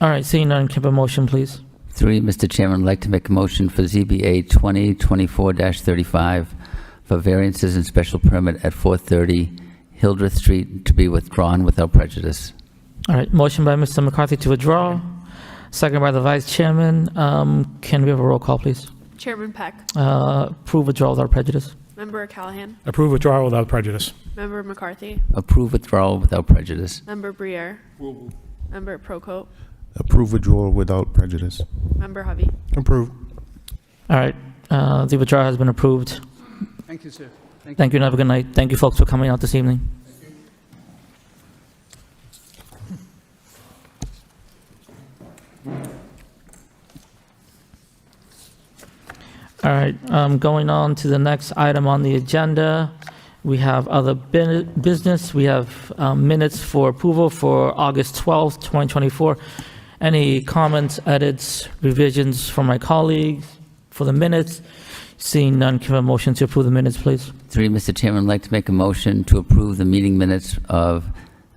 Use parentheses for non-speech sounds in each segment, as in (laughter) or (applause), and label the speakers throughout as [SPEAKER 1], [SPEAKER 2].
[SPEAKER 1] All right, seeing none, can I have a motion, please?
[SPEAKER 2] Three, Mr. Chairman, I'd like to make a motion for ZBA 2024-35 for variances and special permit at 430 Hildreth Street to be withdrawn without prejudice.
[SPEAKER 1] All right, motion by Mr. McCarthy to withdraw, second by the vice chairman. Um, Can we have a roll call, please?
[SPEAKER 3] Chairman Peck,
[SPEAKER 1] Uh, Approve withdrawal without prejudice.
[SPEAKER 3] Member Callahan,
[SPEAKER 4] Approve withdrawal without prejudice.
[SPEAKER 3] Member McCarthy,
[SPEAKER 2] Approve withdrawal without prejudice.
[SPEAKER 3] Member Briere, Member Procope,
[SPEAKER 5] Approve withdrawal without prejudice.
[SPEAKER 3] Member Hovey.
[SPEAKER 5] Approve.
[SPEAKER 1] All right, uh, the withdrawal has been approved.
[SPEAKER 6] Thank you, sir.
[SPEAKER 1] Thank you, and have a good night. Thank you, folks, for coming out this evening. All right, um, going on to the next item on the agenda, we have other bin- business. We have um, minutes for approval for August 12th, 2024. Any comments, edits, revisions from my colleagues for the minutes? Seeing none, can I have a motion to approve the minutes, please?
[SPEAKER 2] Three, Mr. Chairman, I'd like to make a motion to approve the meeting minutes of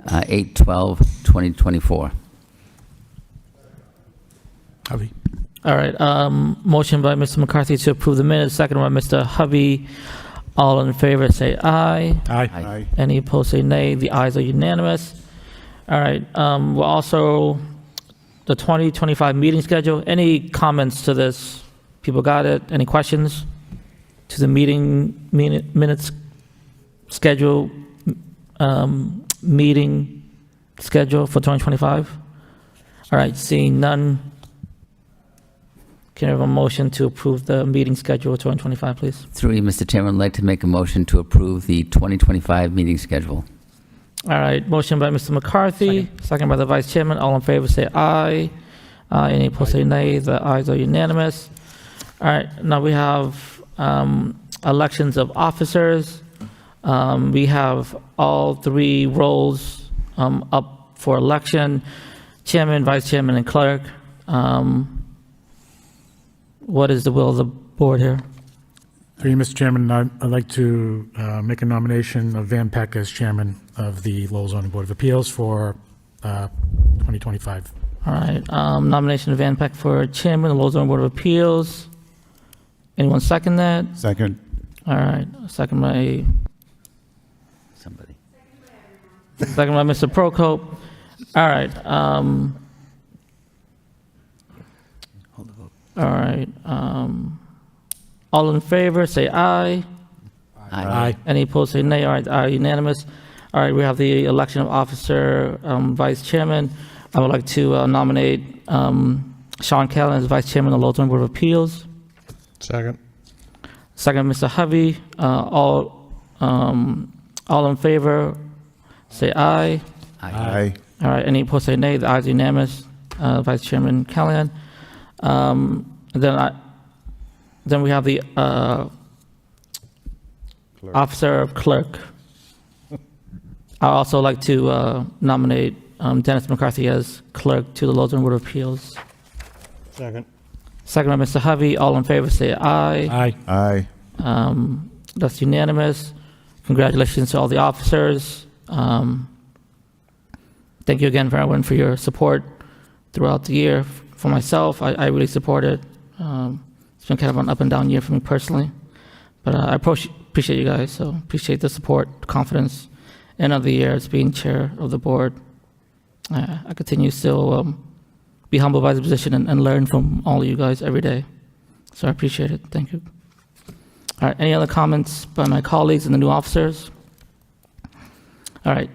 [SPEAKER 2] uh, 8/12/2024.
[SPEAKER 4] Hovey.
[SPEAKER 1] All right, um, motion by Mr. McCarthy to approve the minutes, second by Mr. Hovey. All in favor, say aye.
[SPEAKER 4] Aye.
[SPEAKER 2] Aye.
[SPEAKER 1] Any opposed, say nay. The ayes are unanimous. All right, um, we're also, the 2025 meeting schedule, any comments to this? People got it? Any questions to the meeting, minute- minutes, schedule, um, meeting schedule for 2025? All right, seeing none, can I have a motion to approve the meeting schedule for 2025, please?
[SPEAKER 2] Three, Mr. Chairman, I'd like to make a motion to approve the 2025 meeting schedule.
[SPEAKER 1] All right, motion by Mr. McCarthy, second by the vice chairman. All in favor, say aye. Aye, any opposed, say nay. The ayes are unanimous. All right, now we have um, elections of officers. Um, We have all three roles um, up for election, chairman, vice chairman, and clerk. Um, What is the will of the board here?
[SPEAKER 4] Through you, Mr. Chairman, I- I'd like to uh, make a nomination of Van Peck as chairman of the Lowell zoning board of appeals for uh, 2025.
[SPEAKER 1] All right, um, nomination of Van Peck for chairman, of the Lowell Zoning Board of Appeals. Anyone second that?
[SPEAKER 5] Second.
[SPEAKER 1] All right, second by,
[SPEAKER 2] Somebody.
[SPEAKER 1] second by Mr. Prokop. All right, um, all right, um, all in favor, say aye.
[SPEAKER 2] Aye.
[SPEAKER 1] Any opposed, say nay. All right, are unanimous. All right, we have the election of officer, um, vice chairman. I would like to uh, nominate, um, Sean Callan as vice chairman of the Lowell Zoning Board of Appeals.
[SPEAKER 5] Second.
[SPEAKER 1] Second, Mr. Hovey, uh, all, um, all in favor, say aye.
[SPEAKER 5] Aye.
[SPEAKER 1] All right, any opposed, say nay. The ayes are unanimous. Uh, Vice Chairman Callahan. Um, Then I, then we have the uh,
[SPEAKER 5] Clerk.
[SPEAKER 1] Officer of Clerk. I'd also like to uh, nominate um, Dennis McCarthy as Clerk to the Lowell Zoning Board of Appeals.
[SPEAKER 5] Second.
[SPEAKER 1] Second by Mr. Hovey, all in favor, say aye.
[SPEAKER 4] Aye.
[SPEAKER 5] Aye.
[SPEAKER 1] Um, That's unanimous. Congratulations to all the officers. Um, Thank you again, for everyone, for your support throughout the year. For myself, I I really support it. Um, It's been kind of an up-and-down year for me personally, but uh, I approach- appreciate you guys, so appreciate the support, confidence. End of the year, as being chair of the board. I I continue to still um, be humbled by the position and- and learn from all you guys every day. So I appreciate it. Thank you. All right, any other comments by my colleagues and the new officers? All right,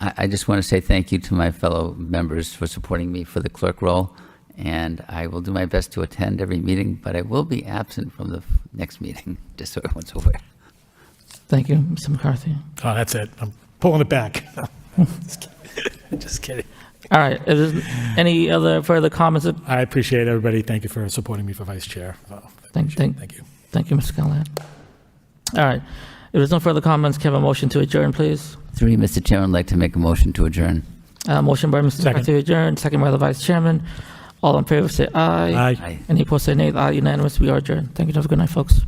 [SPEAKER 2] I, I just want to say thank you to my fellow members for supporting me for the clerk role, and I will do my best to attend every meeting, but I will be absent from the f- next meeting, (laughs) just so everyone's aware.
[SPEAKER 1] thank you, Mr. McCarthy.
[SPEAKER 4] Oh, that's it. I'm pulling it back. Just kidding. Just kidding.
[SPEAKER 1] All right, is there any other further comments? uh,
[SPEAKER 4] I appreciate everybody. Thank you for supporting me for vice chair. Oh,
[SPEAKER 1] Thank, thank,
[SPEAKER 4] Thank you.
[SPEAKER 1] thank you, Mr. Callahan. All right, if there's no further comments, can I have a motion to adjourn, please?
[SPEAKER 2] Three, Mr. Chairman, I'd like to make a motion to adjourn.
[SPEAKER 1] Uh, motion by Mr.
[SPEAKER 4] Second.
[SPEAKER 1] McCarthy to adjourn, second by the vice chairman. All in favor, say aye.
[SPEAKER 4] Aye.
[SPEAKER 2] Aye.
[SPEAKER 1] Any opposed, say nay. The ayes are unanimous. We are adjourned. Thank you. Have a good night, folks.